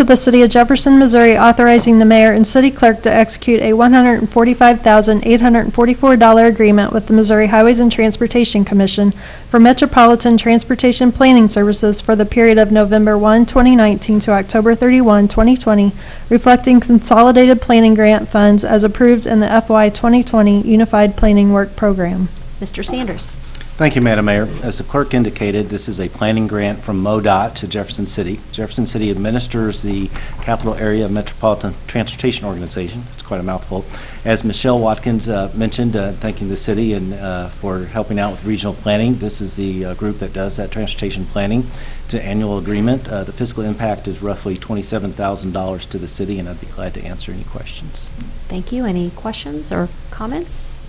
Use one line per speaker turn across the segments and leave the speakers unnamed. to the City of Jefferson, Missouri, authorizing the mayor and city clerk to execute a $145,844 agreement with the Missouri Highways and Transportation Commission for Metropolitan Transportation Planning Services for the period of November 1, 2019 to October 31, 2020, reflecting consolidated planning grant funds as approved in the FY 2020 Unified Planning Work Program.
Mr. Sanders.
Thank you, Madam Mayor. As the clerk indicated, this is a planning grant from MoDOT to Jefferson City. Jefferson City administers the Capital Area Metropolitan Transportation Organization. It's quite a mouthful. As Michelle Watkins uh, mentioned, uh, thanking the city and uh, for helping out with regional planning, this is the uh, group that does that transportation planning. It's an annual agreement. Uh, The fiscal impact is roughly $27,000 to the city, and I'd be glad to answer any questions.
Thank you. Any questions or comments?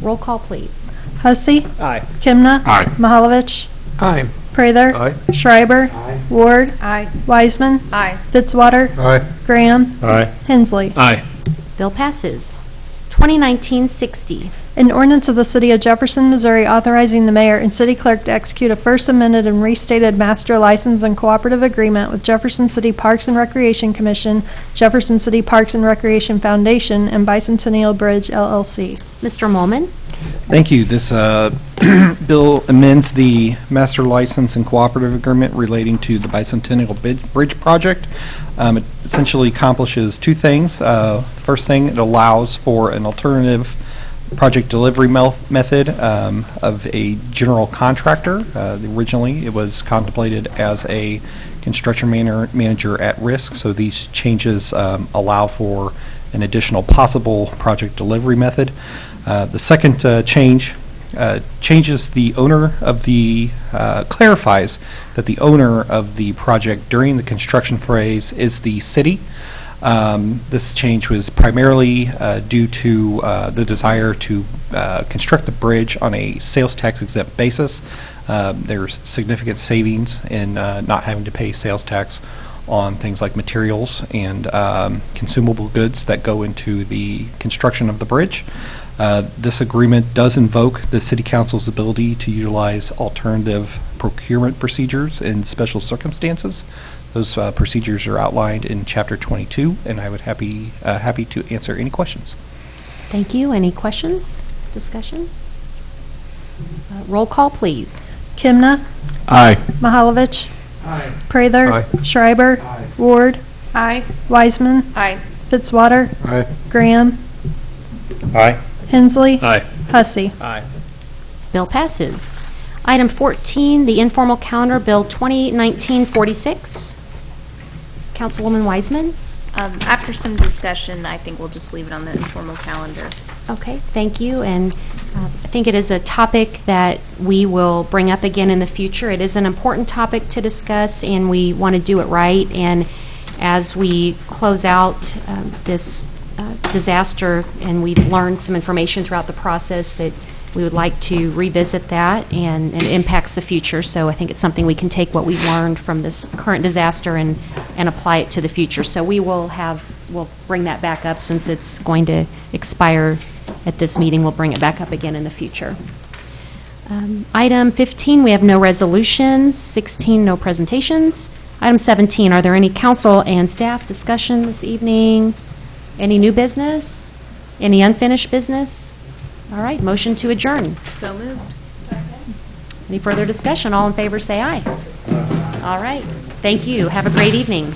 Roll call, please.
Hussey.
Aye.
Kimna.
Aye.
Mahalovich.
Aye.
Prather.
Aye.
Schreiber. Ward. Wiseman.
Aye.
Fitzwater.
Aye.
Graham.
Aye.
Hensley.
Aye.
Bill passes. 2019-60,
An ordinance of the City of Jefferson, Missouri authorizing the mayor and city clerk to execute a first amended and restated master license and cooperative agreement with Jefferson City Parks and Recreation Commission, Jefferson City Parks and Recreation Foundation, and Bicentennial Bridge LLC.
Mr. Molman.
Thank you. This uh, bill amends the master license and cooperative agreement relating to the Bicentennial Bid- Bridge Project. Um, It essentially accomplishes two things. Uh, First thing, it allows for an alternative project delivery mel- method um, of a general contractor. Uh, Originally, it was contemplated as a construction maner- manager at risk, so these changes um, allow for an additional possible project delivery method. Uh, The second uh, change uh, changes the owner of the, uh, clarifies that the owner of the project during the construction phase is the city. Um, This change was primarily uh, due to uh, the desire to uh, construct the bridge on a sales tax exempt basis. Um, There's significant savings in uh, not having to pay sales tax on things like materials and um, consumable goods that go into the construction of the bridge. Uh, This agreement does invoke the city council's ability to utilize alternative procurement procedures in special circumstances. Those uh, procedures are outlined in Chapter 22, and I would happy, uh, happy to answer any questions.
Thank you. Any questions, discussion? Uh, Roll call, please.
Kimna.
Aye.
Mahalovich.
Aye.
Prather.
Aye.
Schreiber.
Aye.
Ward.
Aye.
Wiseman.
Aye.
Fitzwater.
Aye.
Graham.
Aye.
Hensley.
Aye.
Hussey.
Aye.
Bill passes. Item 14, the informal calendar, Bill 2019-46. Councilwoman Wiseman.
Um, After some discussion, I think we'll just leave it on the informal calendar.
Okay, thank you, and uh, I think it is a topic that we will bring up again in the future. It is an important topic to discuss, and we want to do it right, and as we close out um, this uh, disaster, and we've learned some information throughout the process, that we would like to revisit that, and and it impacts the future, so I think it's something we can take what we've learned from this current disaster and, and apply it to the future. So we will have, we'll bring that back up since it's going to expire at this meeting. We'll bring it back up again in the future. Um, Item 15, we have no resolutions. 16, no presentations. Item 17, are there any council and staff discussion this evening? Any new business? Any unfinished business? All right, motion to adjourn.
So moved.
Any further discussion? All in favor, say aye. All right, thank you. Have a great evening.